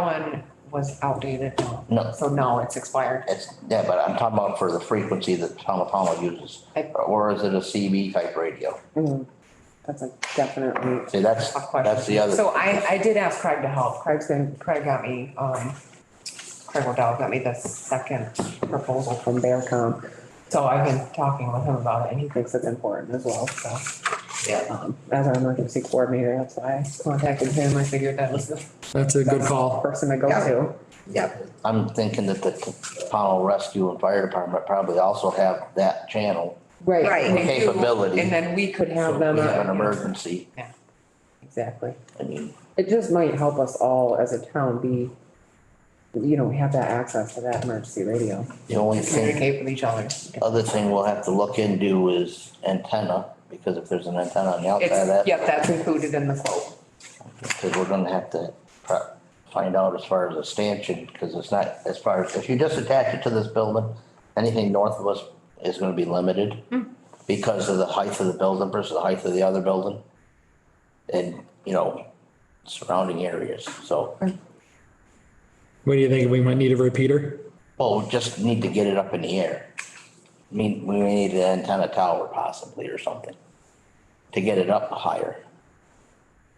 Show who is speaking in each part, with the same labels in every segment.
Speaker 1: one was outdated, no.
Speaker 2: No.
Speaker 1: So no, it's expired.
Speaker 2: It's, yeah, but I'm talking about for the frequency that Town of Pownell uses,
Speaker 1: I-
Speaker 2: or is it a CB type radio?
Speaker 3: Mm, That's a definitely,
Speaker 2: See, that's,
Speaker 1: Tough question.
Speaker 2: that's the other.
Speaker 1: So I, I did ask Craig to help.
Speaker 3: Craig's been
Speaker 1: Craig got me, um, Craig O'Dowd got me the second proposal.
Speaker 3: from Bearcom,
Speaker 1: So I've been talking with him about it and he
Speaker 3: thinks it's important as well, so.
Speaker 2: Yeah.
Speaker 3: um, As our emergency coordinator, that's why I contacted him, I figured that was the
Speaker 4: That's a good call.
Speaker 3: person to go to.
Speaker 2: Yeah, I'm thinking that the Pownell Rescue and Fire Department probably also have that channel
Speaker 3: Right,
Speaker 1: Right. And you-
Speaker 2: capability.
Speaker 1: And then we could
Speaker 2: So
Speaker 1: have
Speaker 2: if
Speaker 1: them.
Speaker 2: we have an
Speaker 1: uh,
Speaker 2: emergency,
Speaker 3: exactly.
Speaker 2: I mean,
Speaker 3: It just might help us all as a town be, you know, have that access to that emergency radio.
Speaker 2: the only thing,
Speaker 1: Communicate with each other.
Speaker 2: other thing we'll have to look into is antenna, because if there's an antenna on the outside of
Speaker 1: It's,
Speaker 2: that,
Speaker 1: yep, that's included in the quote.
Speaker 2: because we're gonna have to pro- find out as far as a stanchion, because it's not, as far as, if you just attach it to this building, anything north of us is gonna be limited because of the height of the building versus the height of the other building. And, you know, surrounding areas, so,
Speaker 4: What do you think? We might need a repeater?
Speaker 2: well, we just need to get it up in the air. I mean, we may need an antenna tower possibly or something to get it up higher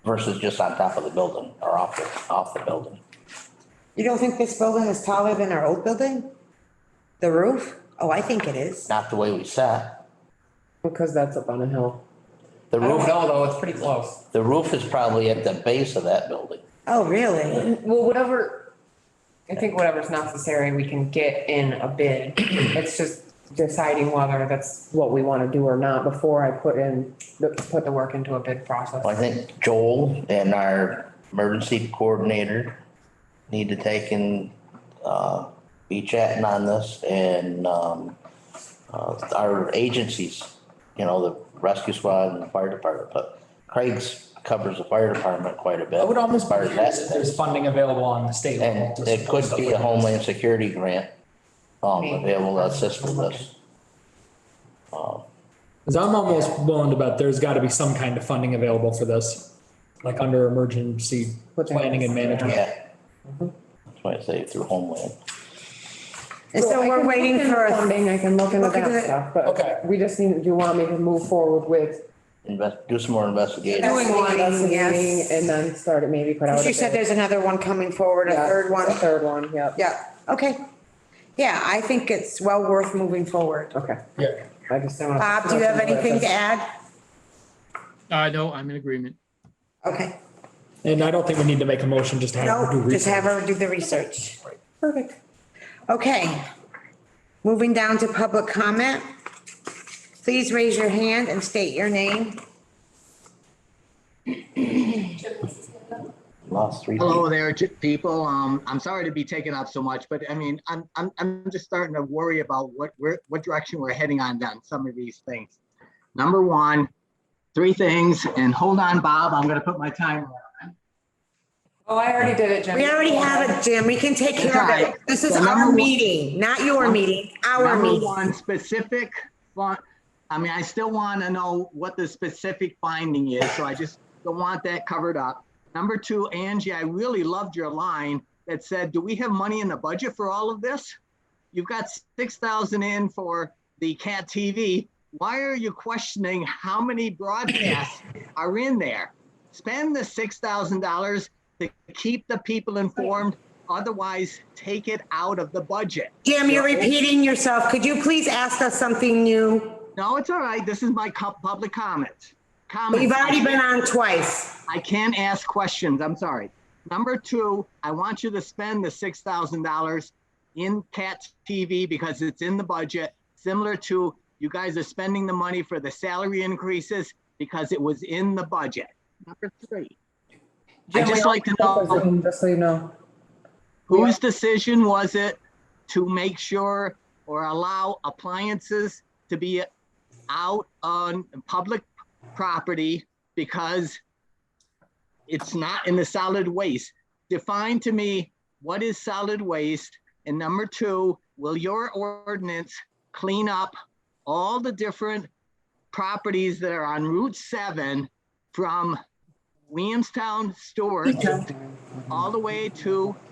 Speaker 2: versus just on top of the building or off, the off the building.
Speaker 5: You don't think this building is taller than our old building? The roof? Oh, I think it is.
Speaker 2: Not the way we sat.
Speaker 3: Because that's up on a hill.
Speaker 2: The
Speaker 1: I don't
Speaker 2: roof,
Speaker 1: know though, it's pretty close.
Speaker 2: the roof is probably at the base of that building.
Speaker 5: Oh, really?
Speaker 1: Well, whatever, I think whatever's necessary, we can get in a bid. It's just deciding whether that's,
Speaker 3: What we want to do or not before I put in,
Speaker 1: put the work into a bid process.
Speaker 2: I think Joel and our emergency coordinator need to take and, uh, be chatting on this and, um, uh, our agencies, you know, the rescue squad and the fire department, but Craig's covers the fire department quite a bit.
Speaker 6: I would almost
Speaker 2: as
Speaker 6: be
Speaker 2: far as that
Speaker 6: curious if there's funding available on the state level.
Speaker 2: And
Speaker 6: to
Speaker 2: it
Speaker 6: support
Speaker 2: could be
Speaker 6: stuff
Speaker 2: a
Speaker 6: like this.
Speaker 2: homeland security grant, um, available to assist with this.
Speaker 4: Cause I'm almost willing to bet there's gotta be some kind of funding available for this, like under emergency
Speaker 3: What the heck
Speaker 4: planning and
Speaker 3: is-
Speaker 4: management.
Speaker 2: Yeah. That's why I say through homeland.
Speaker 5: And so
Speaker 3: I can
Speaker 5: we're
Speaker 3: look
Speaker 5: waiting
Speaker 3: into
Speaker 5: for, a-
Speaker 3: Funding, I can look into
Speaker 5: Look into
Speaker 3: that
Speaker 5: it.
Speaker 3: stuff,
Speaker 4: Okay.
Speaker 3: but we just need, you want me to move forward with
Speaker 2: Invest, do some more investigating.
Speaker 5: Doing one,
Speaker 3: investigating
Speaker 5: yes.
Speaker 3: and then start it maybe put out.
Speaker 5: you
Speaker 3: a
Speaker 5: said
Speaker 3: bid.
Speaker 5: there's another one coming forward, a
Speaker 3: Yeah,
Speaker 5: third one.
Speaker 3: A third one, yep,
Speaker 5: Yeah, okay. Yeah, I think it's well worth moving forward.
Speaker 3: okay.
Speaker 4: Yeah.
Speaker 3: I just.
Speaker 5: Bob, do you have anything to add?
Speaker 7: Uh, no, I'm in agreement.
Speaker 5: Okay,
Speaker 4: And I don't think we need to make a motion just to have her do
Speaker 5: no, just have
Speaker 4: research.
Speaker 5: her do the research.
Speaker 3: Perfect.
Speaker 5: Okay. Moving down to public comment. Please raise your hand and state your name.
Speaker 2: Lost three.
Speaker 8: Hello there, j- people. Um, I'm sorry to be taking up so much, but I mean, I'm, I'm, I'm just starting to worry about what we're, what direction we're heading on down some of these things. Number one, three things, and hold on, Bob, I'm gonna put my timer. on.
Speaker 1: Oh, I already did it, Jim.
Speaker 5: We already have it, Jim. We can take care of it. This is
Speaker 8: So number
Speaker 5: our
Speaker 8: one-
Speaker 5: meeting, not your meeting, our
Speaker 8: Number
Speaker 5: meeting.
Speaker 8: one, specific fun, I mean, I still want to know what the specific finding is, so I just don't want that covered up. Number two, Angie, I really loved your line that said, do we have money in the budget for all of this? You've got six thousand in for the CAT TV. Why are you questioning how many broadcasts are in there? Spend the six thousand dollars to keep the people informed, otherwise take it out of the budget.
Speaker 5: Jim, you're repeating yourself. Could you please ask us something new?
Speaker 8: No, it's all right. This is my co- public comment. Comment.
Speaker 5: We've already been on twice.
Speaker 8: I can't ask questions. I'm sorry. Number two, I want you to spend the six thousand dollars in CAT TV because it's in the budget, similar to you guys are spending the money for the salary increases because it was in the budget. Number three, I'd just like to know
Speaker 3: Just so you know,
Speaker 8: Whose decision was it to make sure or allow appliances to be out on public property because it's not in the solid waste? Define to me, what is solid waste? And number two, will your ordinance clean up all the different properties that are on Route 7 from Williamstown, Stewart, all the way to